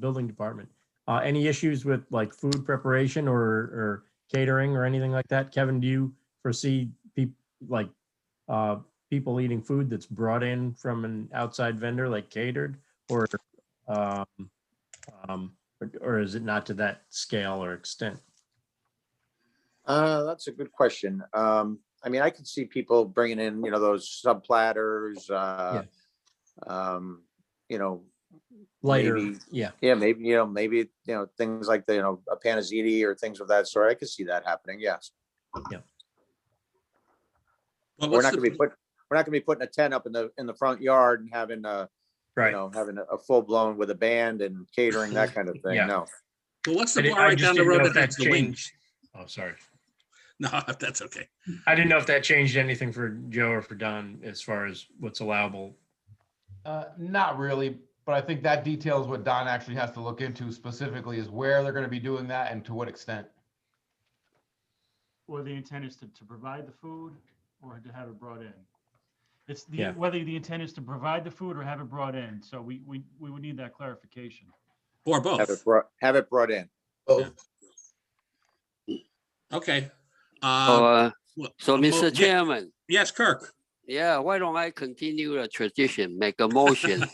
building department. Uh, any issues with like food preparation or, or catering or anything like that? Kevin, do you foresee peop- like, uh, people eating food that's brought in from an outside vendor like catered or, um, um, or- or is it not to that scale or extent? Uh, that's a good question. Um, I mean, I can see people bringing in, you know, those sub platters, uh, um, you know, Lighter, Maybe. yeah, yeah, maybe, you know, maybe, you know, things like, the, you know, a panizzitti or things of that sort. I could see that happening, yes. But We're what's not gonna be the, put, we're not gonna be putting a tent up in the, in the front yard and having, uh, you right. know, having a- a full blown with a band and catering, that kind of thing, Yeah. no. but what's I the di- bar I right just down the didn't know road if that that that's the wings? Oh, sorry. No, that's okay. I didn't know if that changed anything for Joe or for Don as far as what's allowable. Uh, not really, but I think that details what Don actually has to look into specifically is where they're gonna be doing that and to what extent. or the intent is to, to provide the food or to have it brought in. It's the, Yeah. whether the intent is to provide the food or have it brought in, so we, we, we would need that clarification. Or Oh. Have it both. brought, have it brought in. Okay. So, Uh, uh, well, so a mo- yeah. Mr. Chairman, yes, Kirk. yeah, why don't I continue the tradition, make a motion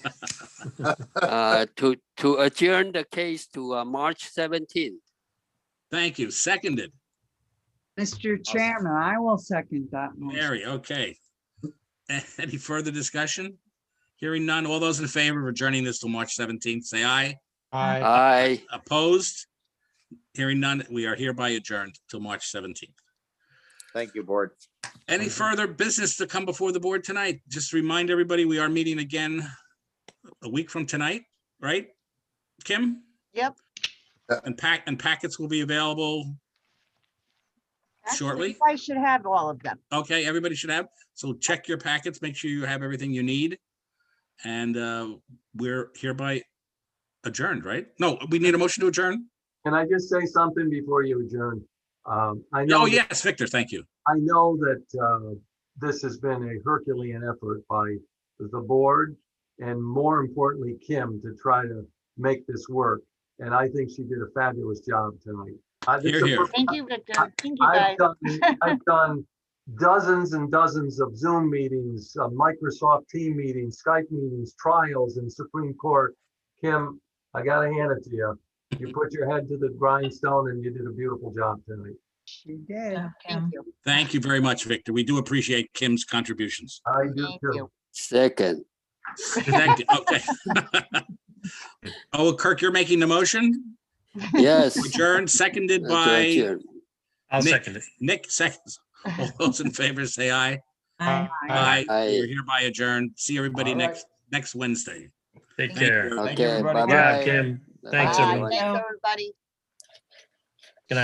uh, to, to adjourn the case to uh, March seventeenth? Thank you. Seconded. Mr. Chairman, I will second that motion. Mary, okay. Any further discussion? Hearing none. All those in favor of adjourning this till March seventeenth, say aye. Uh, I, Aye, Opposed? Hearing none, we are hereby adjourned till March seventeenth. Thank you, board. Any further business to come before the board tonight? Just remind everybody, we are meeting again a week from tonight, right? Kim? Yep. And pack, and packets will be available. Shortly? I should have all of them. Okay, everybody should have. So check your packets, make sure you have everything you need. And uh, we're hereby adjourned, right? No, we need a motion to adjourn? Can I just say something before you adjourn? Um, I know, Oh, yes, Victor, thank you. I know that, uh, this has been a Herculean effort by the board and more importantly, Kim, to try to make this work. And I think she did a fabulous job tonight. I- this is Here, the here. first Thank you, Victor. Thank you, guys. I've done, I've done dozens and dozens of Zoom meetings, uh, Microsoft Team meetings, Skype meetings, trials in Supreme Court. Kim, I gotta hand it to you. You put your head to the grindstone and you did a beautiful job tonight. She did. Thank you. Thank you very much, Victor. We do appreciate Kim's contributions. I do Thank too. you. second, Thank you. Okay. Oh, Kirk, you're making the motion? yes. Adjourned, seconded to by adjourn. I'll Nick. second it. Nick, seconds. All those in favor, say aye. I, Aye. Aye. We're hereby adjourned. See everybody All right. next, next Wednesday. Take Thank care. you. Thank you, Okay, everybody. bye Yeah, bye. Kim. Thanks, Bye. everyone. Thanks, everybody.